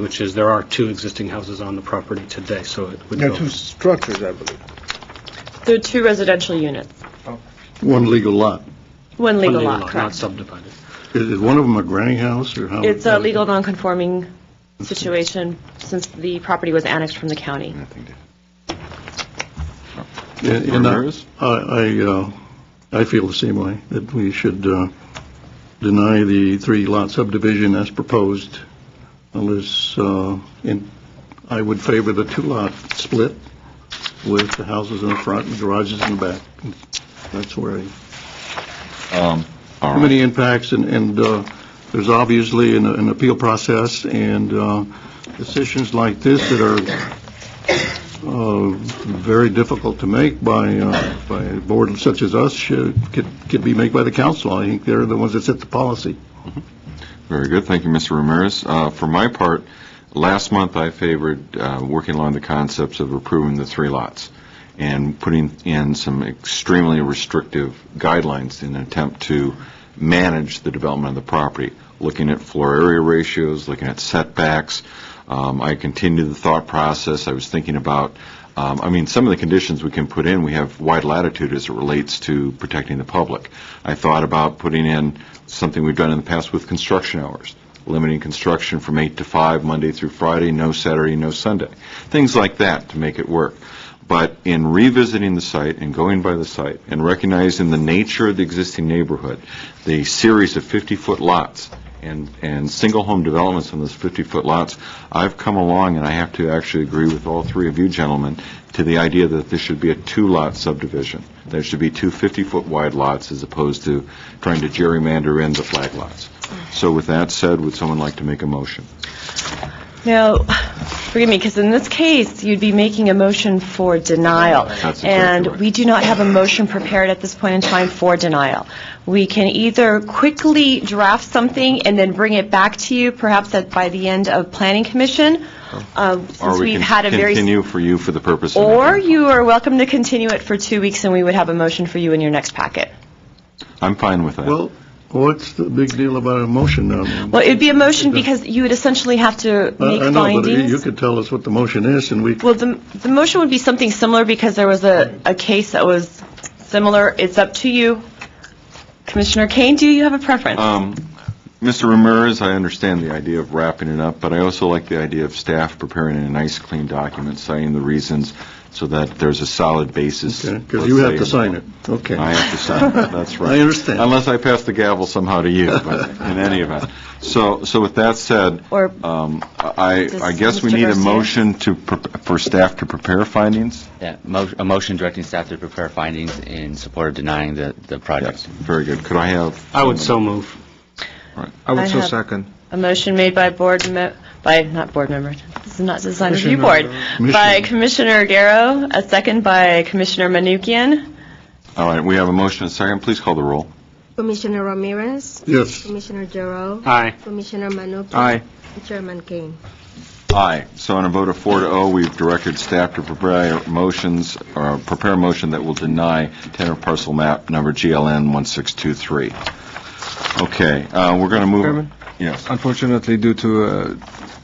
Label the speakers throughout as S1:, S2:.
S1: which is there are two existing houses on the property today, so it would
S2: There
S1: go.
S2: are two structures, I believe.
S3: There are two residential units,
S4: One legal lot.
S3: one legal
S1: Only
S3: lot,
S1: Not
S3: correct?
S1: subdivided.
S4: Is is one of them a granny house or how?
S3: It's a legal nonconforming situation since the property was annexed from the county.
S4: And- and I-
S5: Ramirez?
S4: I, I, uh, I feel the same way, that we should uh, deny the three-lot subdivision as proposed unless, uh, and I would favor the two-lot split with the houses in the front and garages in the back. That's where I
S5: Um,
S4: too
S5: all right.
S4: many impacts, and, and uh, there's obviously an, an appeal process, and uh, decisions like this that are uh, very difficult to make by, uh, by a board such as us should, could, could be made by the council. I think they're the ones that set the policy.
S5: Very good. Thank you, Mr. Ramirez. Uh, For my part, last month I favored uh, working along the concepts of approving the three lots and putting in some extremely restrictive guidelines in an attempt to manage the development of the property, looking at floor area ratios, looking at setbacks. Um, I continued the thought process. I was thinking about, um, I mean, some of the conditions we can put in, we have wide latitude as it relates to protecting the public. I thought about putting in something we've done in the past with construction hours, limiting construction from 8 to 5, Monday through Friday, no Saturday, no Sunday, things like that to make it work. But in revisiting the site and going by the site and recognizing the nature of the existing neighborhood, the series of 50-foot lots and, and single-home developments on those 50-foot lots, I've come along, and I have to actually agree with all three of you gentlemen, to the idea that this should be a two-lot subdivision. There should be two 50-foot wide lots as opposed to trying to gerrymander in the flag lots. So with that said, would someone like to make a motion?
S3: Now, forgive me, because in this case, you'd be making a motion for denial.
S5: That's exactly
S3: And
S5: right.
S3: we do not have a motion prepared at this point in time for denial. We can either quickly draft something and then bring it back to you, perhaps at- by the end of Planning Commission, uh,
S5: Or
S3: since
S5: we
S3: we've
S5: can
S3: had a very...
S5: Continue for you for the purpose of...
S3: Or you are welcome to continue it for two weeks, and we would have a motion for you in your next packet.
S5: I'm fine with that.
S4: Well, what's the big deal about a motion now?
S3: Well, it would be a motion because you would essentially have to
S4: I-
S3: make
S4: I know, but you
S3: findings.
S4: could tell us what the motion is, and we,
S3: Well, the, the motion would be something similar because there was a, a case that was similar. It's up to you. Commissioner Kane, do you have a preference?
S5: Um, Mr. Ramirez, I understand the idea of wrapping it up, but I also like the idea of staff preparing a nice, clean document citing the reasons so that there's a solid basis.
S4: because
S5: let's
S4: you have
S5: say.
S4: to sign it. Okay.
S5: I have to sign it, that's right.
S4: I understand.
S5: Unless I pass the gavel somehow to you, but in any event. So, so with that said,
S3: Or-
S5: um, I, I
S3: Does
S5: guess we
S3: Mr.
S5: need a
S3: Garcia-
S5: motion to, pre- for staff to prepare findings?
S6: Yeah, mo- a motion directing staff to prepare findings in support of denying the, the project.
S5: Very good. Could I have?
S1: I would so move.
S2: I
S3: I
S2: would so
S3: have-
S2: second.
S3: A motion made by board, me- by, not board member, this is not design review board, by Commissioner Darrow, a second by Commissioner Manukian.
S5: All right, we have a motion and a second. Please call the roll.
S7: Commissioner Ramirez,
S4: Yes.
S7: Commissioner Jarrell,
S1: Aye.
S7: Commissioner Manukin.
S2: Aye.
S7: and Chairman Kane.
S5: Aye. So on a vote of four to oh, we've directed staff to prepare motions, or prepare a motion that will deny tenor parcel map number GLN 1623. Okay, uh, we're going to move.
S2: Chairman?
S5: Yes,
S2: Unfortunately, due to uh,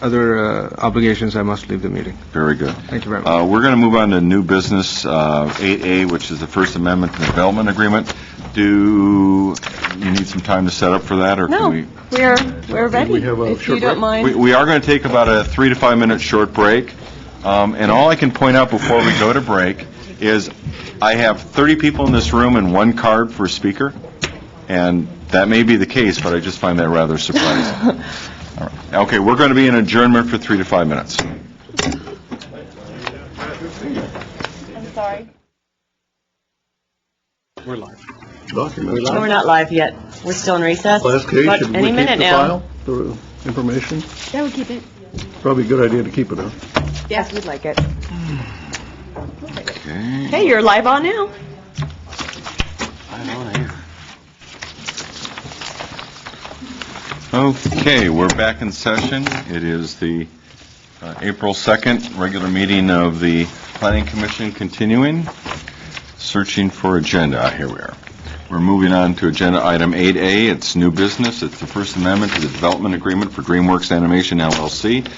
S2: other uh, obligations, I must leave the meeting.
S5: very good.
S2: Thank you very much.
S5: Uh, We're going to move on to new business, uh, 8A, which is the First Amendment to the Development Agreement. Do you need some time to set up for that, or
S3: No,
S5: can we?
S3: we're, we're ready,
S4: have a
S3: if you
S4: short break?
S3: don't
S5: We-
S3: mind.
S5: We are going to take about a three to five-minute short break, Um, and all I can point out before we go to break is I have 30 people in this room and one card for speaker, and that may be the case, but I just find that rather surprising. All right. Okay, we're going to be in adjournment for three to five minutes.
S3: I'm sorry.
S1: We're live.
S4: Document.
S3: We're not live yet. We're still in recess.
S4: Last case,
S3: But
S4: should we
S3: any
S4: keep
S3: minute
S4: the
S3: now.
S4: file, the information?
S7: Yeah, we keep it.
S4: Probably a good idea to keep it, huh?
S3: Yes, we'd like it.
S5: Okay.
S3: Hey, you're live on now.
S5: Okay, we're back in session. It is the uh, April 2nd, regular meeting of the Planning Commission continuing, searching for agenda. Ah, Here we are. We're moving on to Agenda Item 8A. It's new business. It's the First Amendment to the Development Agreement for DreamWorks Animation LLC,